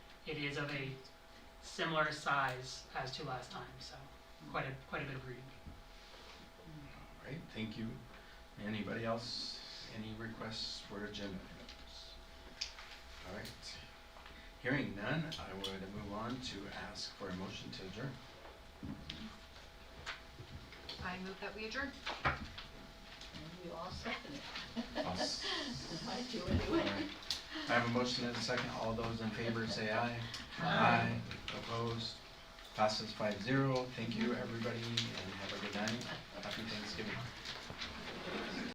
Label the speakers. Speaker 1: it is of a similar size as to last time, so quite a, quite a bit of reading.
Speaker 2: All right, thank you. Anybody else, any requests for agenda items? All right, hearing none, I would move on to ask for a motion to adjourn.
Speaker 3: I move that we adjourn.
Speaker 4: And you all second it.
Speaker 2: I'll s-
Speaker 4: I do
Speaker 2: All
Speaker 4: anyway.
Speaker 2: right. I have a motion and a second, all those in favor say aye.
Speaker 4: Aye.
Speaker 2: Opposed, passes five zero, thank you, everybody, and have a good night, happy Thanksgiving.